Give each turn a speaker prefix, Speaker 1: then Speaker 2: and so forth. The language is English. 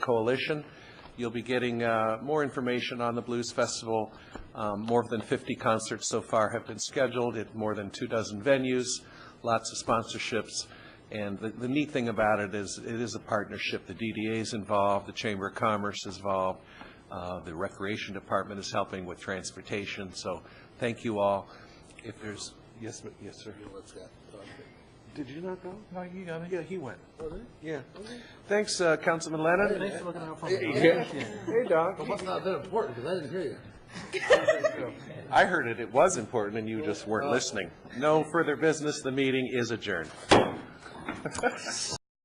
Speaker 1: Coalition. You'll be getting uh, more information on the Blues Festival. Um, More than 50 concerts so far have been scheduled at more than two dozen venues, lots of sponsorships. And the- the neat thing about it is, it is a partnership. The DDA is involved, the Chamber of Commerce is involved, uh, the Recreation Department is helping with transportation, so thank you all. If there's, yes, ma- yes, sir. Did you not go? No, you Oh, got it. Yeah, he went. Yeah. Thanks, uh, Councilman Lennon.
Speaker 2: Thanks for looking out for me.
Speaker 1: Hey, Doc.
Speaker 2: It must not have been important, because I didn't hear you.
Speaker 1: I heard it, it was important, and Uh, you just weren't listening. No further business, the meeting is adjourned.